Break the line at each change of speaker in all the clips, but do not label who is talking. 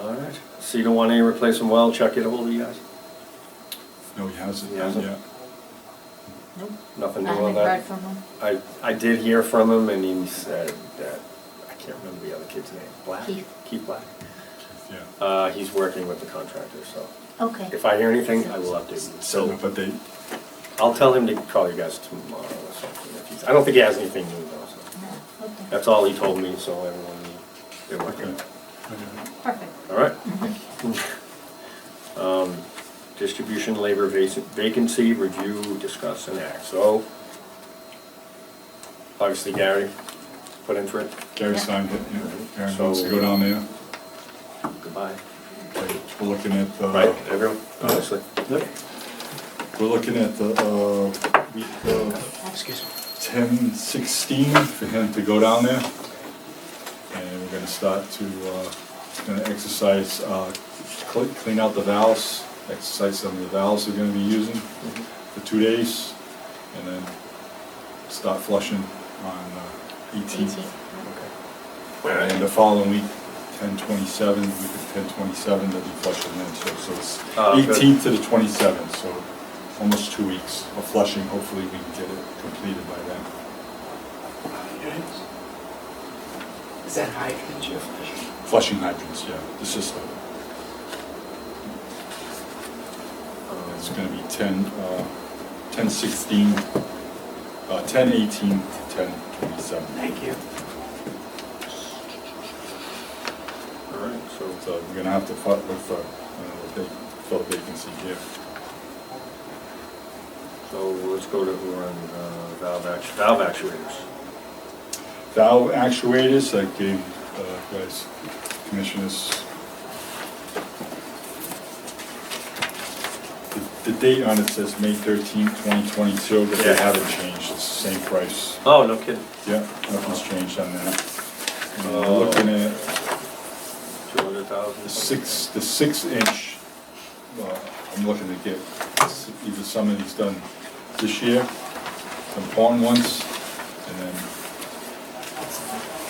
All right, so you don't want any replacement well, Chuck, get ahold of you guys?
No, he hasn't,
He
not
hasn't?
yet. Nope.
Nothing new
I
on
haven't heard
that?
from him.
I, I did hear from him and he said that, I can't remember the other kid's name, Black?
Keith.
Keith Black.
Yeah.
Uh, he's working with the contractor, so
Okay.
if I hear anything, I will update you.
So,
So
but they,
I'll tell him to call you guys tomorrow or something. if he's- I don't think he has anything new though, so.
No, Okay,
That's all he told me, so everyone, knew they're working on
okay.
it.
Okay.
perfect.
All right. Um, Distribution labor vac- vacancy, review, discuss, and act. So, obviously Gary put in for it.
Gary
Yeah.
signed it, yeah. Gary
So-
wants to go down there.
Goodbye.
We're looking at the.
Right, everyone, obviously.
Yep. We're looking at the, uh, week of
Excuse me.
ten sixteen for him to go down there. And we're gonna start to, uh, gonna exercise, uh, cl- clean out the valves, exercise some of the valves they're gonna be using for two days, and then start flushing on eighteen.
18.
And the following week, ten twenty-seven, week of ten twenty-seven, they'll be flushing then, so, so it's
Ah, good.
eighteenth to the twenty-seventh, so almost two weeks of flushing, hopefully we can get it completed by then.
Is that hydrant you're flushing?
Flushing hydrants, yeah, the system. It's gonna be ten, uh, ten sixteen, uh, ten eighteen to ten twenty-seven.
Thank you.
All right, so,
So we're gonna have to fight with, uh, uh, the vac- fill the vacancy here.
so let's go to, we're on uh, valve actu, valve actuators.
valve actuators, I gave uh, guys, commissioners. The- The date on it says May thirteenth, twenty twenty-two, but they
Yeah.
haven't changed, it's the same price.
Oh, no kidding.
Yeah, nothing's changed on that. And we're Looking at
Two hundred thousand.
the six, the six inch, uh, I'm looking to get s- either some of these done this year, some pawn ones, and then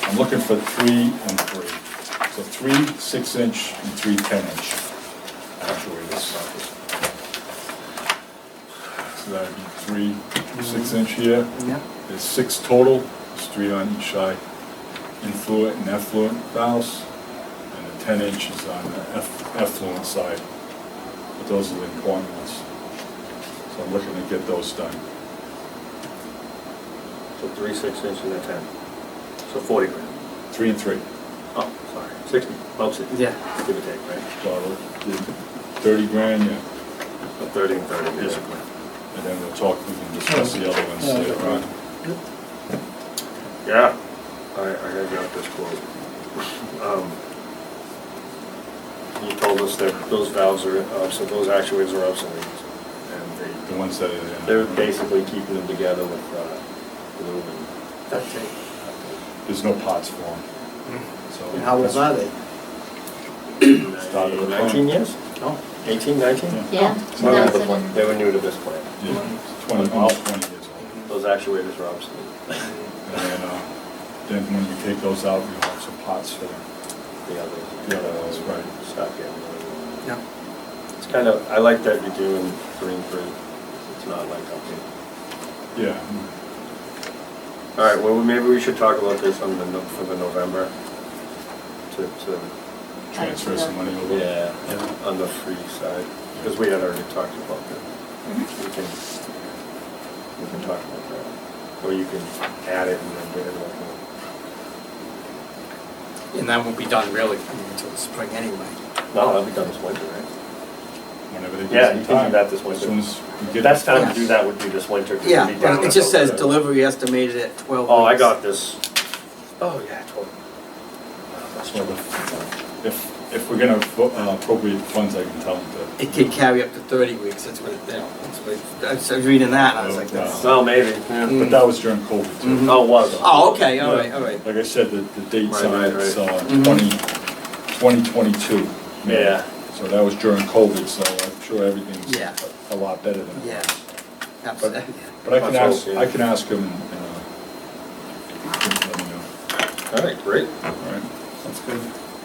I'm looking for three and three. So three six inch and three ten inch actuators. So that'd be three six inch here.
Yeah.
There's six total, there's three on each side, influent and effluent valves, and the ten inches on the eff- effluent side. But those are the important ones. So I'm looking to get those done.
So three, six inch and a ten. So forty grand.
Three and three.
Oh, sorry, sixty, about sixty.
Yeah.
Give or take, right?
So the thirty grand, yeah,
So Thirty and thirty, basically.
and then we'll talk, we can discuss the other ones later on.
Yeah. I, I gotta grab this quote. Um, You told us that those valves are obsolete, those actuators are obsolete, and
The ones that are in.
they, they're basically keeping them together with, uh, glue and.
That's it.
There's no pots for them, so.
And how old are they?
Started with
Nineteen years?
No.
Eighteen, nineteen?
Yeah.
Yeah,
They were new to the
2000
plant. Oh. They were new to this plant.
Yeah, twenty, almost twenty years old.
Those actuators are obsolete.
And then, uh, then when we take those out, we have some pots for them.
The others.
The other ones, right.
Stop getting.
No.
It's kind of, I like that you're doing three and three. It's not like, okay.
Yeah.
All right, well, maybe we should talk about this on the, no- for the November. To, to,
Transfer some money over.
yeah, on the free side, because we had already talked about that.
Mm-hmm.
Mhm.
We can, we can talk about that. Or you can add it and then get it like.
And that won't be done really until the spring anyway.
No, that'll be done this winter, right?
Whenever they
Yeah,
get
you
some
can
time.
do that this
As
winter.
soon as we
The
get.
best time to
Yes.
do that would be this winter. 'cause it'd
Yeah,
be down
but it
in
just says
October.
delivery estimated at twelve
Oh, I
weeks.
got this. Oh, yeah, totally.
That's why the- If, if we're gonna vo- uh, appropriate funds, I can tell them to.
It could carry up to thirty weeks, that's what, it- you know, that's what, it- I was- I was reading that, and I was like, that's.
Well, maybe.
Mm.
But that was during COVID too.
Mhm.
Oh, it was.
Oh, okay, all right, all right.
Like I said, the, the dates
Right,
on
right,
it's, uh,
Mhm.
twenty, twenty twenty-two.
Yeah.
So that was during COVID, so I'm sure everything's
Yeah.
a a lot better than. it
Yeah.
was.
Absolutely.
But I can
That's
ask,
okay.
I can ask him, and, uh, let me know.
All right, great.
All right, that's good.